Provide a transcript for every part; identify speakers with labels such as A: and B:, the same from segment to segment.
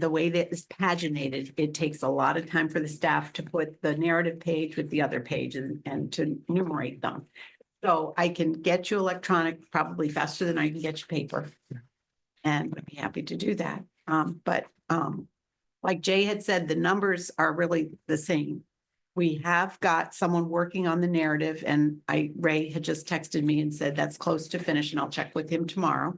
A: the way that is paginated, it takes a lot of time for the staff to put the narrative page with the other page and, and to enumerate them. So I can get you electronic probably faster than I can get you paper. And would be happy to do that. Um, but, um, like Jay had said, the numbers are really the same. We have got someone working on the narrative and I, Ray had just texted me and said that's close to finish and I'll check with him tomorrow.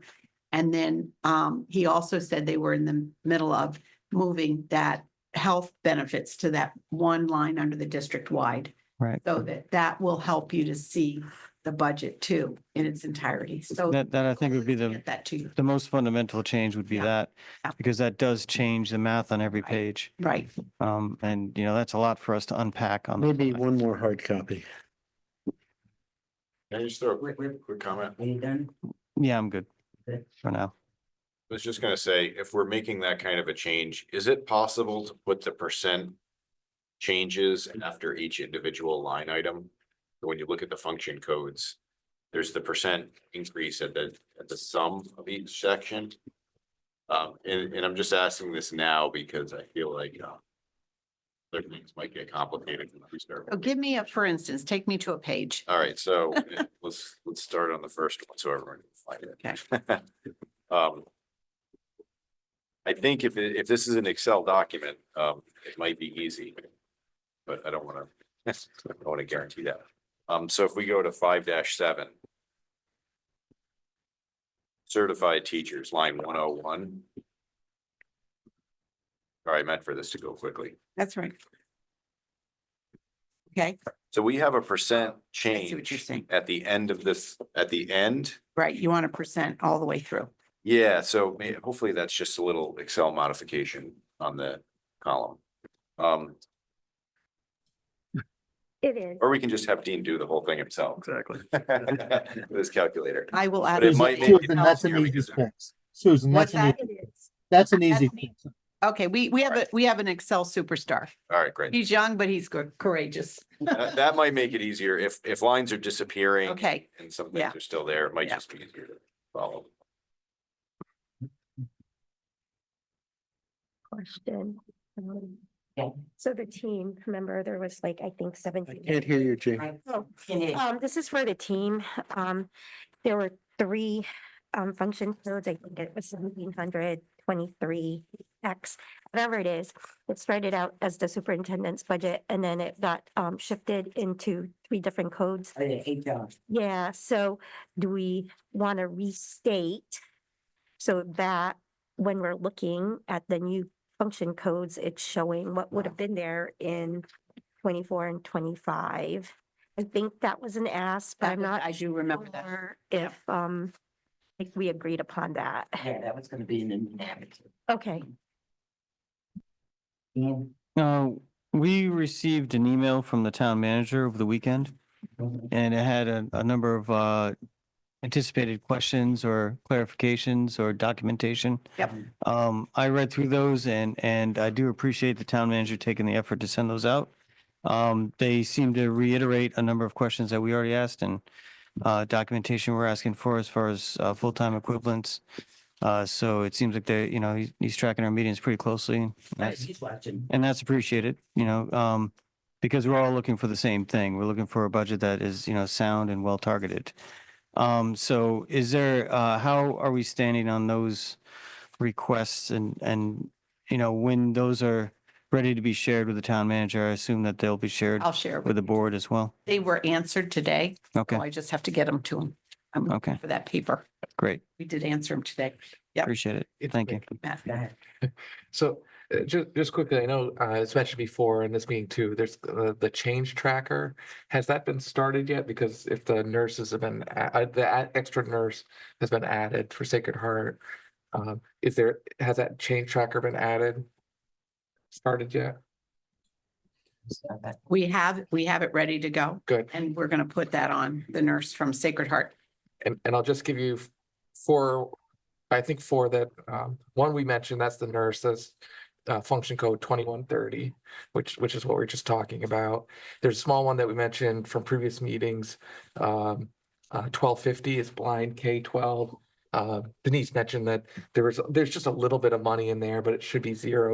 A: And then um, he also said they were in the middle of moving that health benefits to that one line under the district wide.
B: Right.
A: So that that will help you to see the budget too in its entirety. So.
B: That, that I think would be the,
A: Get that to you.
B: the most fundamental change would be
A: Yeah.
B: that,
A: Yeah.
B: because that does change the math on every
A: Right.
B: page.
A: Right.
B: Um, and you know, that's a lot for us to unpack on. the
C: Maybe
B: fly.
C: one more hard copy.
D: Can I just throw a quick, quick comment?
E: Are you done?
B: Yeah, I'm good
E: Okay.
B: for now.
D: I was just gonna say, if we're making that kind of a change, is it possible to put the percent changes after each individual line item? So When you look at the function codes, there's the percent increase at the, at the sum of each section. Um, and, and I'm just asking this now because I feel like, uh, other things might get complicated. when we start.
A: So give me a, for instance, take me to a page.
D: All right, so let's, let's start on the first one, so everyone can find it. Um, I think if, it- if this is an Excel document, um, it might be easy. But I don't wanna, I don't wanna guarantee that. Um, so if we go to five seven. Certified teachers, line one oh one. Sorry, I meant for this to go quickly.
A: That's right. Okay,
D: So we have a percent
A: I see what you're
D: change
A: saying.
D: at the end of this, at the end.
A: Right, you want a percent all the way through.
D: Yeah, so may- hopefully that's just a little Excel modification on the column. Um,
F: It is.
D: or we can just have Dean do the whole thing himself. Exactly. With his calculator.
A: I will add.
D: But it
A: a
D: might
A: percent.
D: make-
C: Susan, that's an
D: Here we
C: easy
D: go.
C: fix. Susan,
A: What's
C: that's an,
A: that?
C: easy-
F: It is.
C: that's an easy
A: That's me.
C: fix.
A: Okay, we, we have a, we have an Excel superstar.
D: All right, great.
A: He's young, but he's cour- courageous.
D: That, that might make it easier if, if lines are disappearing.
A: Okay,
D: And some
A: yeah.
D: things are still there, it might
A: Yeah.
D: just be easier to follow.
F: Question. Um, So the team, remember there was like, I think
C: I
F: seventeen.
C: can't hear you, Jane.
E: I can hear you.
F: Um, this is for the team. Um, there were three, um, function codes. I think it was seventeen hundred twenty-three X, whatever it is. It started out as the superintendent's budget and then it got, um, shifted into three different codes.
E: I did eight dollars.
F: Yeah, so do we want to restate? So that when we're looking at the new function codes, it's showing what would have been there in twenty-four and twenty-five. I think that was an ask, but
A: I'm
F: I'm
A: not, I
F: not
A: do remember that.
F: sure if, um, if we agreed upon that.
E: Yeah, that was gonna be in the next.
F: Okay,
E: Ian?
B: Uh, we received an email from the town manager over the weekend. And it had a, a number of uh, anticipated questions or clarifications or documentation.
A: Yep.
B: Um, I read through those and, and I do appreciate the town manager taking the effort to send those out. Um, they seem to reiterate a number of questions that we already asked and uh, documentation we're asking for as far as uh, full-time equivalents. Uh, so it seems like they, you know, he's, he's tracking our meetings pretty closely. and
E: Right,
B: that's-
E: He's watching.
B: and that's appreciated, you know, um, because we're all looking for the same thing. We're looking for a budget that is, you know, sound and well targeted. Um, so is there, uh, how are we standing on those requests and, and, you know, when those are ready to be shared with the town manager, I assume that they'll be shared
A: I'll share.
B: with
A: with
B: the board as well?
A: They were answered today, so
B: Okay,
A: I just have to get them to him. I'm looking
B: okay,
A: for that paper.
B: great.
A: We did answer them today, Yep.
B: Appreciate it. Thank you.
A: Matt.
E: Go ahead.
G: So just, just quickly, I know uh, it's mentioned before in this meeting too, there's uh, the change tracker. Has that been started yet? Because if the nurses have been, a- uh, the a- extra nurse has been added for Sacred Heart, um, is there, has that change tracker been added? Started yet?
A: We have, we have it ready to go.
G: Good.
A: And we're going to put that on the nurse from Sacred Heart.
G: And, and I'll just give you f- four, I think four that, um, one we mentioned, that's the nurse, that's uh, function code twenty-one thirty, which, which is what we are just talking about. There's a small one that we mentioned from previous meetings, um, uh, twelve fifty is blind K twelve. uh, Denise mentioned that there was, there's just a little bit of money in there, but it should be zero